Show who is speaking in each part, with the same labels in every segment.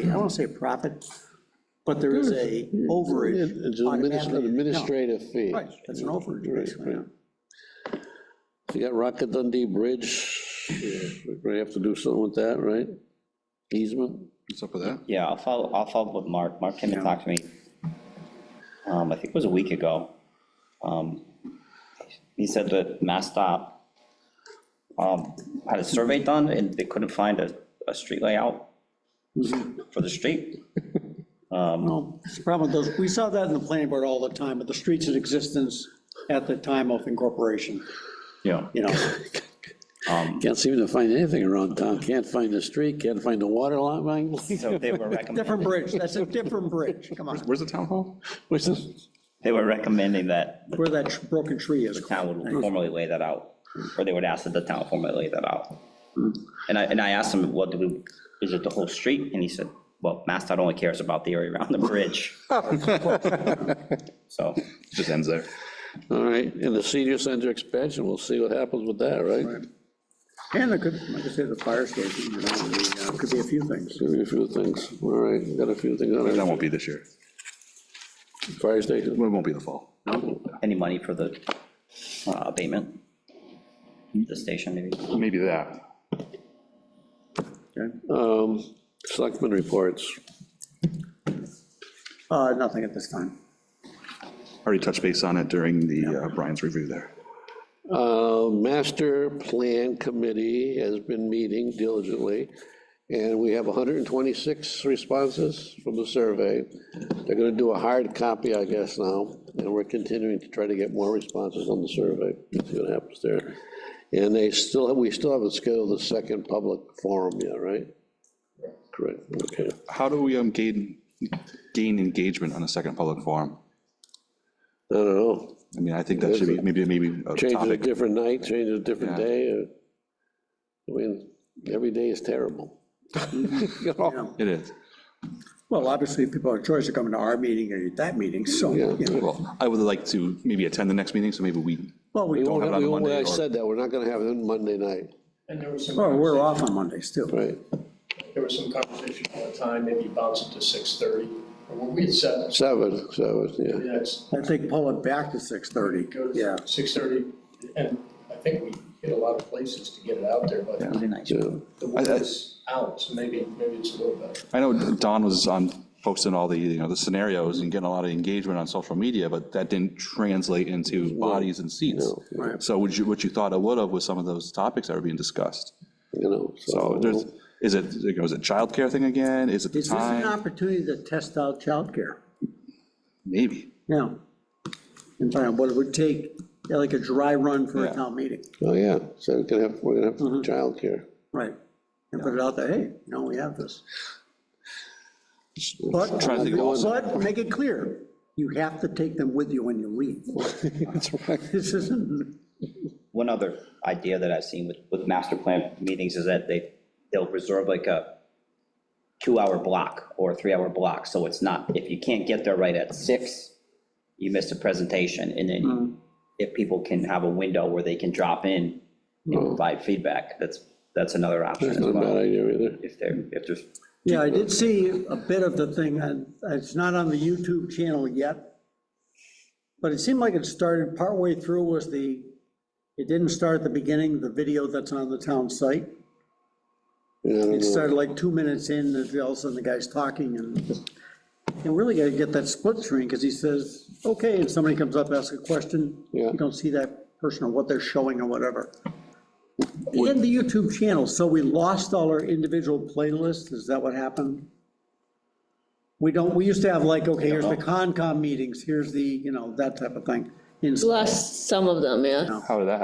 Speaker 1: want to say profit, but there is a overage.
Speaker 2: It's an administ-
Speaker 1: automatically-
Speaker 2: administrative fee.
Speaker 1: No, Right, that's an overage, basically, yeah.
Speaker 2: You got Rocket Dundee Bridge, we have to do something with that, right? Easement,
Speaker 3: What's up with that?
Speaker 4: Yeah, I'll follow, I'll follow up with Mark. Mark came and talked to me, um, I think it was a week ago. Um, He said that MassDOT um, had a survey done and they couldn't find a, a street layout for the street.
Speaker 1: No, it's the problem with those, we saw that in the planning board all the time, but the streets in existence at the time of incorporation,
Speaker 4: Yeah.
Speaker 1: you know,
Speaker 2: can't seem to find anything around town, can't find the street, can't find the water line.
Speaker 4: So they were
Speaker 1: different
Speaker 4: recommending,
Speaker 1: bridge, that's a different bridge, come on,
Speaker 3: Where's the town hall?
Speaker 2: Which is,
Speaker 4: they were recommending that
Speaker 1: where that tr- broken tree is.
Speaker 4: the town would formally lay that out, or they would ask that the town formally lay that out. And I, and I asked him, what do we, is it the whole street? And he said, well, MassDOT only cares about the area around the bridge. So,
Speaker 3: Just ends there.
Speaker 2: all right, and the senior center expansion, we'll see what happens with that, right?
Speaker 1: And there could, like I said, the fire station, you know, the, uh, could be a few things.
Speaker 2: Give you a few things, all right, got a few things on
Speaker 3: That
Speaker 2: it,
Speaker 3: won't be this year.
Speaker 2: fire
Speaker 3: It
Speaker 2: station,
Speaker 3: won't be in the fall.
Speaker 4: any money for the uh, abatement? The station, maybe?
Speaker 3: Maybe that.
Speaker 2: um, selectmen reports,
Speaker 1: Uh, nothing at this time.
Speaker 3: Already touched base on it during the uh, Brian's review there.
Speaker 2: Uh, Master Plan Committee has been meeting diligently, and we have 126 responses from the survey. They're gonna do a hard copy, I guess, now, and we're continuing to try to get more responses on the survey, see what happens there. And they still, we still haven't scheduled the second public forum yet, right? Correct, okay.
Speaker 3: How do we um, gain, gain engagement on a second public forum?
Speaker 2: I don't know,
Speaker 3: I mean, I think that should be, maybe, maybe a
Speaker 2: change it a
Speaker 3: topic.
Speaker 2: different night, change it a different
Speaker 3: Yeah.
Speaker 2: day, or, I mean, every day is terrible. You know?
Speaker 1: Yeah.
Speaker 3: It is.
Speaker 1: Well, obviously, people have a choice of coming to our meeting or that meeting, so,
Speaker 2: Yeah.
Speaker 1: you know.
Speaker 3: Well, I would like to maybe attend the next meeting, so maybe we,
Speaker 1: well, we
Speaker 2: We
Speaker 1: don't,
Speaker 2: won't,
Speaker 3: have
Speaker 2: have-
Speaker 3: it on
Speaker 2: we
Speaker 3: a
Speaker 2: won't,
Speaker 3: Monday
Speaker 2: I
Speaker 3: or-
Speaker 2: said that, we're not gonna have it on Monday night,
Speaker 5: And there was some,
Speaker 1: well, we're
Speaker 5: conversation-
Speaker 1: off on Mondays too.
Speaker 2: right?
Speaker 5: there was some conversation all the time, maybe bounce it to 6:30. Or what we had said,
Speaker 2: Seven, seven, yeah.
Speaker 5: that's,
Speaker 1: I think pull it back to 6:30, yeah.
Speaker 5: go to 6:30, and I think we hit a lot of places to get it out there, but
Speaker 4: That'd be nice.
Speaker 2: yeah.
Speaker 5: the word is out, so maybe, maybe it's a little better.
Speaker 3: I know Don was on, posting all the, you know, the scenarios and getting a lot of engagement on social media, but that didn't translate into bodies and seats.
Speaker 1: Right.
Speaker 3: So what you, what you thought it would have was some of those topics that were being discussed.
Speaker 2: You know,
Speaker 3: So there's,
Speaker 2: so,
Speaker 3: is it, oh, is it childcare thing again? Is it the
Speaker 1: Is this an
Speaker 3: time?
Speaker 1: opportunity to test out childcare?
Speaker 3: Maybe.
Speaker 1: Yeah. And find out what it would take, yeah, like a dry run for a
Speaker 3: Yeah.
Speaker 1: town meeting,
Speaker 2: oh, yeah, so we're gonna have, we're gonna have childcare.
Speaker 1: right? And put it out there, hey, you know, we have this. But,
Speaker 3: Trying to think of all-
Speaker 1: but make it clear, you have to take them with you when you leave.
Speaker 2: That's right.
Speaker 1: This isn't,
Speaker 4: One other idea that I've seen with, with master plan meetings is that they, they'll reserve like a two-hour block or a three-hour block, so it's not, if you can't get there right at six, you miss a presentation, and then if people can have a window where they can drop in and provide feedback, that's, that's another option as
Speaker 2: Not a bad
Speaker 4: well.
Speaker 2: idea either.
Speaker 4: If they're, if there's,
Speaker 1: yeah, I did see a bit of the thing, and it's not on the YouTube channel yet, but it seemed like it started partway through was the, it didn't start at the beginning, the video that's on the town site.
Speaker 2: Yeah, I don't
Speaker 1: It
Speaker 2: know.
Speaker 1: started like two minutes in, and all of a sudden the guy's talking, and you really gotta get that split screen, because he says, okay, and somebody comes up, asks a question,
Speaker 2: Yeah.
Speaker 1: you don't see that person or what they're showing or whatever. And the YouTube channel, so we lost all our individual playlists, is that what happened? We don't, we used to have like, okay, here's the Concom meetings, here's the, you know, that type of thing. And so-
Speaker 6: Lost some of them, yeah.
Speaker 3: How did that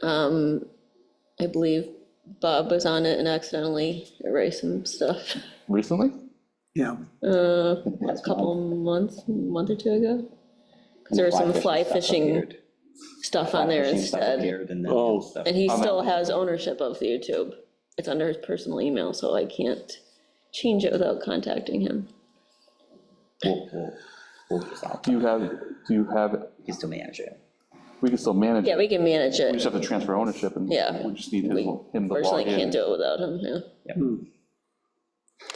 Speaker 3: happen?
Speaker 6: I believe Bob was on it and accidentally erased some stuff
Speaker 3: Recently?
Speaker 1: Yeah,
Speaker 6: a couple months, month or two ago. Because there was some fly fishing stuff on there
Speaker 4: fishing stuff
Speaker 6: instead.
Speaker 4: appeared and
Speaker 2: Oh.
Speaker 4: then stuff.
Speaker 6: And he still has ownership of the YouTube. It's under his personal email, so I can't change it without contacting him.
Speaker 4: We'll, we'll, we'll just, out-
Speaker 3: Do you have, do you have,
Speaker 4: he's still managing it.
Speaker 3: we can still manage,
Speaker 6: Yeah,
Speaker 3: it.
Speaker 6: we can manage
Speaker 3: we
Speaker 6: it.
Speaker 3: just have to transfer ownership and
Speaker 6: Yeah.
Speaker 3: we just need his-
Speaker 6: We
Speaker 3: him to log
Speaker 6: personally can't
Speaker 3: in.
Speaker 6: do it without him, yeah.
Speaker 4: Yep.